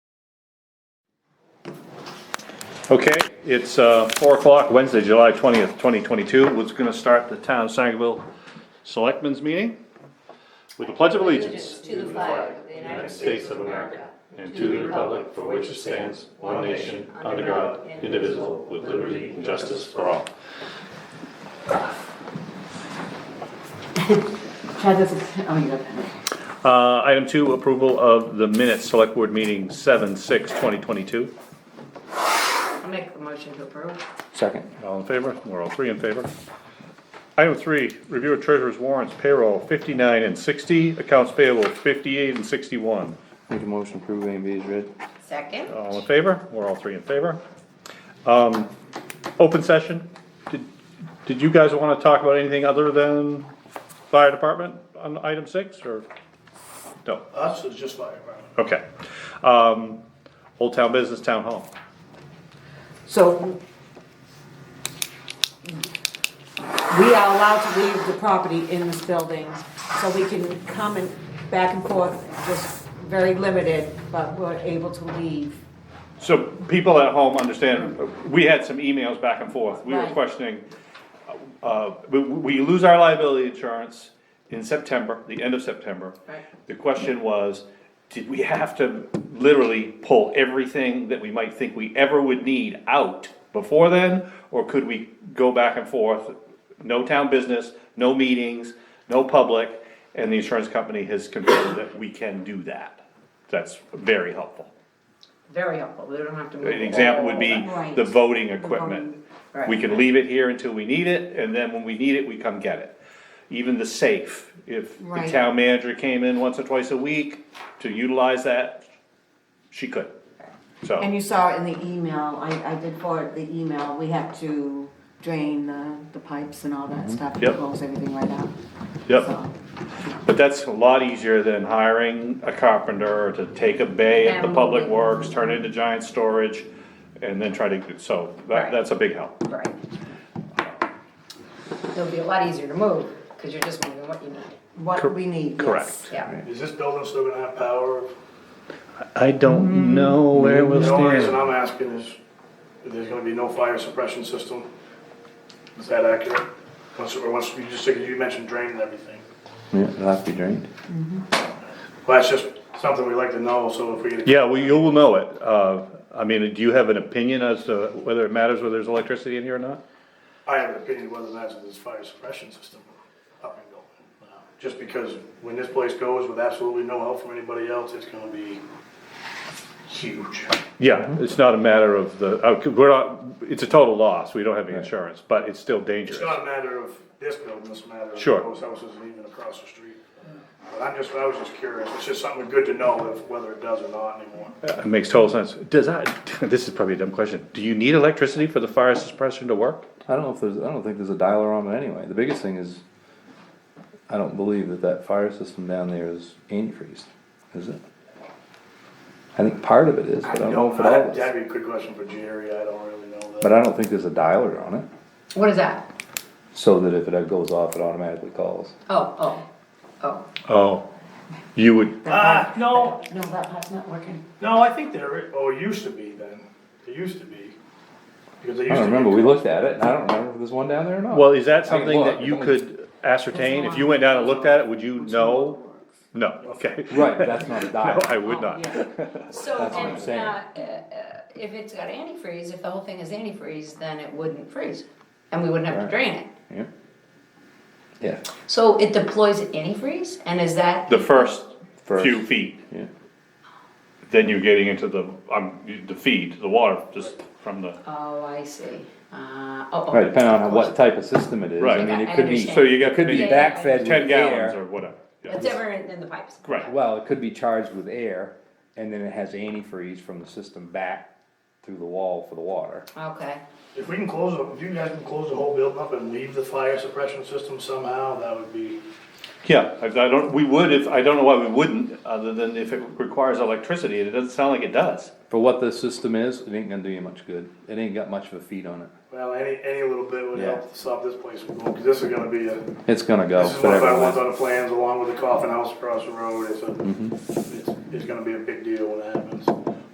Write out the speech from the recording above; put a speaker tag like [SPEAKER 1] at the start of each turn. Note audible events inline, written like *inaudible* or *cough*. [SPEAKER 1] Okay, it's uh, four o'clock, Wednesday, July twentieth, twenty twenty-two. We're just gonna start the town of Sangerville Selectmen's meeting with the Pledge of Allegiance.
[SPEAKER 2] To the flag of the United States of America
[SPEAKER 3] and to the republic for which it stands, one nation, under God, indivisible, with liberty and justice for all.
[SPEAKER 2] Chad doesn't, oh, you got that.
[SPEAKER 1] Uh, Item two, approval of the minutes, Select Board Meeting seven, six, twenty twenty-two.
[SPEAKER 2] I'll make a motion to approve.
[SPEAKER 4] Second.
[SPEAKER 1] All in favor? We're all three in favor. Item three, review of treasurer's warrants, payroll fifty-nine and sixty, accounts payable fifty-eight and sixty-one.
[SPEAKER 4] Make a motion to approve A and B is read.
[SPEAKER 2] Second?
[SPEAKER 4] Oh,
[SPEAKER 1] All in favor? We're all three in favor. Um, Open session, did, did you guys wanna talk about anything other than fire department on item six, or? No,
[SPEAKER 5] Us is just fire department.
[SPEAKER 1] okay. Um, Old Town Business Town Hall.
[SPEAKER 6] So we are allowed to leave the property in this building, so we can come and back and forth, just very limited, but we're able to leave.
[SPEAKER 1] So people at home understand, we had some emails back and forth, we were
[SPEAKER 6] Right.
[SPEAKER 1] questioning, uh, we, we lose our liability insurance in September, the end of September.
[SPEAKER 6] Right.
[SPEAKER 1] The question was, did we have to literally pull everything that we might think we ever would need out before then? Or could we go back and forth, no town business, no meetings, no public, and the insurance company has confirmed that we can do that. That's very helpful.
[SPEAKER 2] Very helpful, we don't have to move.
[SPEAKER 1] An example would be
[SPEAKER 6] Right.
[SPEAKER 1] the voting equipment. We can leave it here until we need it, and then when we need it, we come get it. Even the safe, if the
[SPEAKER 6] Right.
[SPEAKER 1] town manager came in once or twice a week to utilize that, she could.
[SPEAKER 6] And
[SPEAKER 1] So,
[SPEAKER 6] you saw in the email, I, I did forward the email, we had to drain the, the pipes and all that stuff, and
[SPEAKER 1] Mm-hmm. Yep.
[SPEAKER 6] close everything right out.
[SPEAKER 1] yep,
[SPEAKER 6] So,
[SPEAKER 1] but that's a lot easier than hiring a carpenter to take a bay at the
[SPEAKER 2] And-
[SPEAKER 1] public works, turn it into giant storage, and then try to, so that,
[SPEAKER 2] Right.
[SPEAKER 1] that's a big help.
[SPEAKER 2] Right. It'll be a lot easier to move, because you're just moving what you need,
[SPEAKER 6] What we need, yes.
[SPEAKER 1] Correct.
[SPEAKER 2] yeah.
[SPEAKER 5] Is this building still gonna have power?
[SPEAKER 1] I don't know where we'll
[SPEAKER 5] The only reason I'm asking is, if there's gonna be no fire suppression system. Is that accurate? Once, or once, you just, you mentioned drain and everything.
[SPEAKER 4] Yeah, it'll have to be drained.
[SPEAKER 5] Well, that's just something we like to know, so if we get.
[SPEAKER 1] Yeah, well, you will know it. Uh, I mean, do you have an opinion as to whether it matters whether there's electricity in here or not?
[SPEAKER 5] I have an opinion whether that's this fire suppression system up and going. Uh, Just because when this place goes with absolutely no help from anybody else, it's gonna be huge.
[SPEAKER 1] Yeah, Mm-hmm. it's not a matter of the, uh, we're not, it's a total loss. We don't have any insurance, but it's still dangerous.
[SPEAKER 5] It's not a matter of this building, it's a matter of
[SPEAKER 1] Sure.
[SPEAKER 5] those houses and even across the street. But I'm just, I was just curious, it's just something good to know if, whether it does or not anymore.
[SPEAKER 1] It makes total sense. Does that, *laughs* this is probably a dumb question. Do you need electricity for the fire suppression to work?
[SPEAKER 4] I don't know if there's, I don't think there's a dialer on it anyway. The biggest thing is, I don't believe that that fire system down there is antifreeze, is it? I think part of it is, but I don't know if it all
[SPEAKER 5] That'd
[SPEAKER 4] is.
[SPEAKER 5] that'd be a good Uh, question for Jerry, I don't really know
[SPEAKER 4] But
[SPEAKER 5] that.
[SPEAKER 4] I don't think there's a dialer on it,
[SPEAKER 2] What is that?
[SPEAKER 4] so that if it goes off, it automatically calls.
[SPEAKER 2] Oh, oh, oh,
[SPEAKER 1] Oh, you would,
[SPEAKER 5] Ah, no,
[SPEAKER 6] No, that part's not working.
[SPEAKER 5] no, I think there, i- oh, it used to be then, it used to be. Because
[SPEAKER 4] I
[SPEAKER 5] they used to.
[SPEAKER 4] don't remember,
[SPEAKER 5] get-
[SPEAKER 4] we looked at it, and I don't remember if there's one down there or not.
[SPEAKER 1] well, is that
[SPEAKER 4] I can
[SPEAKER 1] something
[SPEAKER 4] look.
[SPEAKER 1] that you could ascertain? If you went down and looked at it, would you know? No, okay.
[SPEAKER 4] Right, but that's not
[SPEAKER 1] *laughs*
[SPEAKER 4] a
[SPEAKER 1] No,
[SPEAKER 4] dialer.
[SPEAKER 1] I would not.
[SPEAKER 6] Yeah.
[SPEAKER 2] So,
[SPEAKER 4] That's what I'm
[SPEAKER 2] and,
[SPEAKER 4] saying.
[SPEAKER 2] uh, uh, uh, if it's got antifreeze, if the whole thing is antifreeze, then it wouldn't freeze, and we wouldn't have to
[SPEAKER 4] Right.
[SPEAKER 2] drain it.
[SPEAKER 4] Yeah. Yeah,
[SPEAKER 2] So it deploys antifreeze, and is that?
[SPEAKER 1] The first
[SPEAKER 4] First.
[SPEAKER 1] few feet.
[SPEAKER 4] yeah.
[SPEAKER 1] then you're getting into the, um, the feed, the water, just from the,
[SPEAKER 2] Oh, I see, uh, oh, oh.
[SPEAKER 4] Right, depending on what type of system it is, I
[SPEAKER 1] Right.
[SPEAKER 4] mean,
[SPEAKER 2] I
[SPEAKER 4] it could be,
[SPEAKER 2] understand. So
[SPEAKER 1] you got
[SPEAKER 4] it could
[SPEAKER 2] maybe
[SPEAKER 4] be
[SPEAKER 2] Yeah, yeah, yeah.
[SPEAKER 4] backfed with
[SPEAKER 1] ten gallons or
[SPEAKER 4] air.
[SPEAKER 1] whatever. Yeah.
[SPEAKER 2] Whatever in in the pipes.
[SPEAKER 1] Right.
[SPEAKER 4] Well, it could be charged with air, and then it has antifreeze from the system back through the wall for the water.
[SPEAKER 2] Okay,
[SPEAKER 5] If we can close, the- if you guys can close the whole building up and leave the fire suppression system somehow, that would be,
[SPEAKER 1] Yeah, I, I don't, we would if, I don't know why we wouldn't, other than if it requires electricity, and it doesn't sound like it does.
[SPEAKER 4] For what the system is, it ain't gonna do you much good, it ain't got much of a feed on it,
[SPEAKER 5] well, any, any little bit would
[SPEAKER 4] Yeah.
[SPEAKER 5] help stop this place from going, because this is gonna be a.
[SPEAKER 4] it's gonna go,
[SPEAKER 5] This is one of our ones
[SPEAKER 4] whatever.
[SPEAKER 5] on the
[SPEAKER 4] Mm-hmm.
[SPEAKER 5] plans, along with the coffin house across the road, it's a, it's, it's gonna be a big deal when it happens.